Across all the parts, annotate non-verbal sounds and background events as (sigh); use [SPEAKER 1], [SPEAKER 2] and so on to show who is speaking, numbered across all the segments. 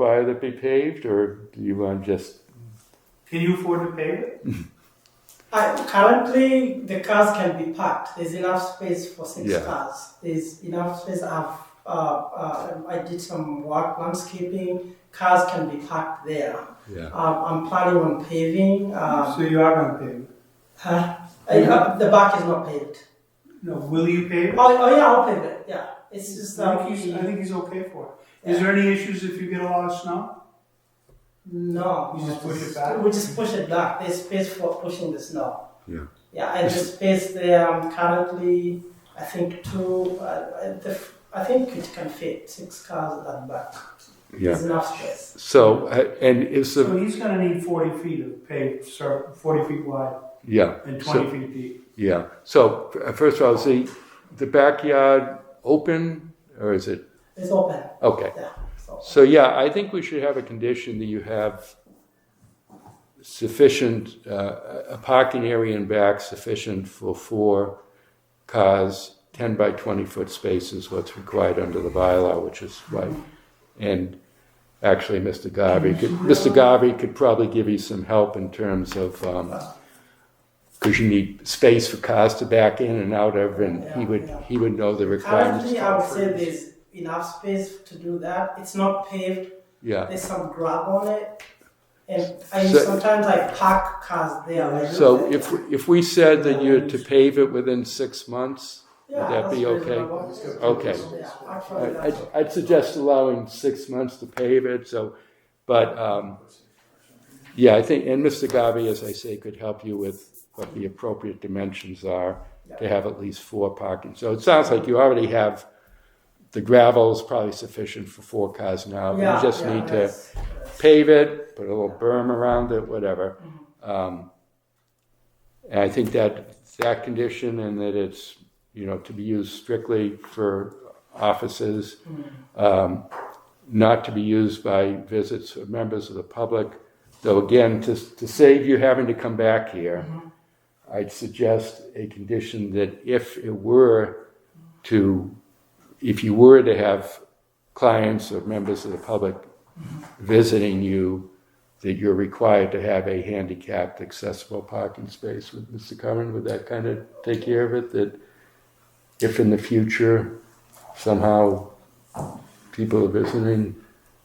[SPEAKER 1] fire that be paved, or do you want just?
[SPEAKER 2] Can you afford to pay it?
[SPEAKER 3] I, currently, the cars can be parked. There's enough space for six
[SPEAKER 1] Yeah.
[SPEAKER 3] cars. There's enough space. I've, uh, uh, I did some work landscaping. Cars can be parked there.
[SPEAKER 1] Yeah.
[SPEAKER 3] Um, I'm planning on paving. Uh,
[SPEAKER 2] So you are gonna pay it.
[SPEAKER 3] huh? I- uh, the back is not paved.
[SPEAKER 2] No, will you pay it?
[SPEAKER 3] Oh, oh yeah, I'll pave it. Yeah, it's just
[SPEAKER 2] I
[SPEAKER 3] um,
[SPEAKER 2] think he's, I think he's okay for it. Is there any issues if you get a lot of snow?
[SPEAKER 3] no.
[SPEAKER 2] You just push it back?
[SPEAKER 3] We just push it back. There's space for pushing the snow.
[SPEAKER 1] Yeah.
[SPEAKER 3] Yeah, and the space there um, currently, I think two. Uh, uh, the, f- I think it can fit six cars at back.
[SPEAKER 1] Yeah.
[SPEAKER 3] There's enough space.
[SPEAKER 1] So uh, and is
[SPEAKER 2] So
[SPEAKER 1] the
[SPEAKER 2] he's gonna need forty feet of paved, sur- forty feet wide
[SPEAKER 1] yeah
[SPEAKER 2] and
[SPEAKER 1] so-
[SPEAKER 2] twenty feet deep.
[SPEAKER 1] yeah. So f- first of all, is the the backyard open or is it
[SPEAKER 3] It's open.
[SPEAKER 1] okay?
[SPEAKER 3] Yeah. it's open.
[SPEAKER 1] So yeah, I think we should have a condition that you have sufficient uh, a parking area in back sufficient for four cars, ten by twenty foot spaces, what's required under the bylaw, which is right. And actually, Mr. Garvey could Mr. Garvey could probably give you some help in terms of. Um, because you need space for cars to back in and out of, and he would he would know the requirements.
[SPEAKER 3] Currently, I would say there's enough space to do that. It's not paved.
[SPEAKER 1] Yeah.
[SPEAKER 3] There's some grub on it, and I
[SPEAKER 1] So-
[SPEAKER 3] sometimes I park cars there. I do
[SPEAKER 1] So
[SPEAKER 3] that.
[SPEAKER 1] if, if we said that you're to pave it within six months,
[SPEAKER 3] yeah,
[SPEAKER 1] would that be
[SPEAKER 3] that's
[SPEAKER 1] okay?
[SPEAKER 3] reasonable.
[SPEAKER 1] Okay.
[SPEAKER 3] Yeah, actually,
[SPEAKER 1] I-
[SPEAKER 3] that's
[SPEAKER 1] I'd, I'd suggest allowing six months to pave it, so, but, um, yeah, I think, and Mr. Garvey, as I say, could help you with what the appropriate dimensions are to have at least four parking. So it sounds like you already have, the gravel is probably sufficient for four cars now. but You Uh, just need to
[SPEAKER 3] that's- that's-
[SPEAKER 1] pave it, put a little berm around it, whatever. Um, and I think that that condition and that it's you know to be used strictly for offices, um, not to be used by visits of members of the public. Though again, to, to save you having to come back here, I'd suggest a condition that if it were to, if you were to have clients or members of the public visiting you that you're required to have a handicapped accessible parking space with Mr. Curran? Would that kind of take care of it? That if in the future somehow people are visiting,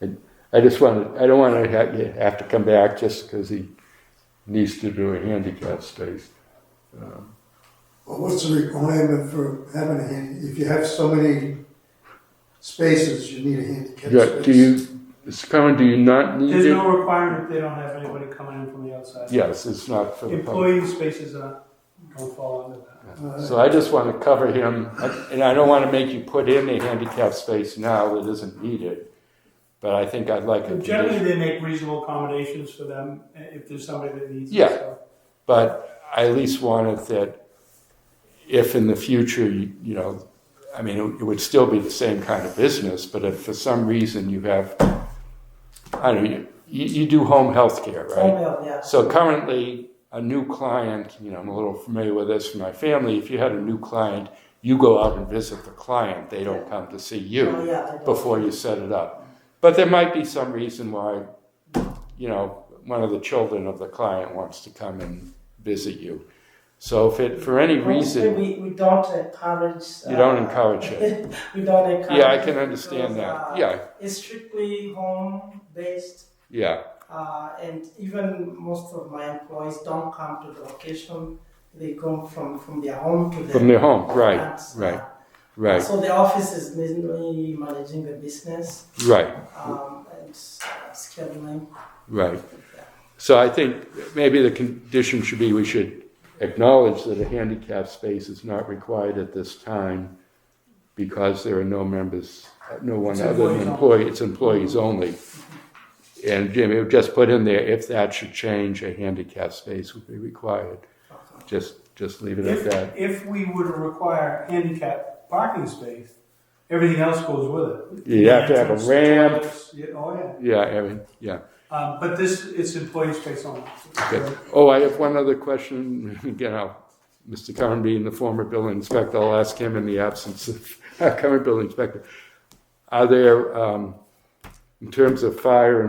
[SPEAKER 1] and I just want to, I don't want to have, you have to come back just because he needs to do a handicap space.
[SPEAKER 4] Well, what's the requirement for having a hand, if you have so many spaces, you need a handicap
[SPEAKER 1] Yeah,
[SPEAKER 4] space?
[SPEAKER 1] do you, Mr. Curran, do you not need
[SPEAKER 2] There's no
[SPEAKER 1] it?
[SPEAKER 2] requirement, they don't have anybody coming in from the outside.
[SPEAKER 1] Yes, it's not for the public.
[SPEAKER 2] Employee spaces are, don't fall under that.
[SPEAKER 4] Uh,
[SPEAKER 1] So I just want to cover him, and I don't want to make you put in a handicap space now that isn't needed, but I think I'd like a
[SPEAKER 2] Generally,
[SPEAKER 1] condition.
[SPEAKER 2] they make reasonable accommodations for them eh, if there's somebody that needs
[SPEAKER 1] Yeah.
[SPEAKER 2] it, so.
[SPEAKER 1] But I at least wanted that if in the future, you you know, I mean, it would still be the same kind of business, but if for some reason you have, I don't know, you, you do home health care, right?
[SPEAKER 3] home health, Oh, yeah.
[SPEAKER 1] So currently, a new client, you know, I'm a little familiar with this from my family. If you had a new client, you go out and visit the client. They don't come to see
[SPEAKER 3] Oh,
[SPEAKER 1] you
[SPEAKER 3] yeah, I do.
[SPEAKER 1] before you set it up. But there might be some reason why, you know, one of the children of the client wants to come and visit you. So if it, for
[SPEAKER 3] Oh,
[SPEAKER 1] any reason,
[SPEAKER 3] we, we don't encourage. Uh,
[SPEAKER 1] you don't encourage it.
[SPEAKER 3] (laughs) we don't encourage.
[SPEAKER 1] Yeah, I
[SPEAKER 3] it
[SPEAKER 1] can understand
[SPEAKER 3] because,
[SPEAKER 1] that.
[SPEAKER 3] uh,
[SPEAKER 1] Yeah,
[SPEAKER 3] It's strictly home based,
[SPEAKER 1] yeah,
[SPEAKER 3] uh, and even most of my employees don't come to the location. They go from, from their home to the
[SPEAKER 1] from their home, right,
[SPEAKER 3] plants, uh,
[SPEAKER 1] right, right,
[SPEAKER 3] So the office is mainly managing the business
[SPEAKER 1] right.
[SPEAKER 3] um, and uh, scheduling.
[SPEAKER 1] Right. So I think maybe the condition should be, we should acknowledge that a handicap space is not required at this time because there are no members, no one
[SPEAKER 2] It's
[SPEAKER 1] other than
[SPEAKER 2] employees
[SPEAKER 1] employee, it's employees only. And Jimmy, just put in there, if that should change, a handicap space would be required. Just, just leave it at that.
[SPEAKER 2] If, if we were to require handicap parking space, everything else goes with it.
[SPEAKER 1] You'd have to have a ramp.
[SPEAKER 2] Toilets, yeah, Oh, yeah.
[SPEAKER 1] Yeah, I mean, yeah.
[SPEAKER 2] Um, but this, it's employee space only.
[SPEAKER 1] Good. Oh, I have one other question. (laughs) Again, I'll, Mr. Curran being the former building inspector, I'll ask (laughs) him in the absence of our current building inspector. Are there, um, in terms of fire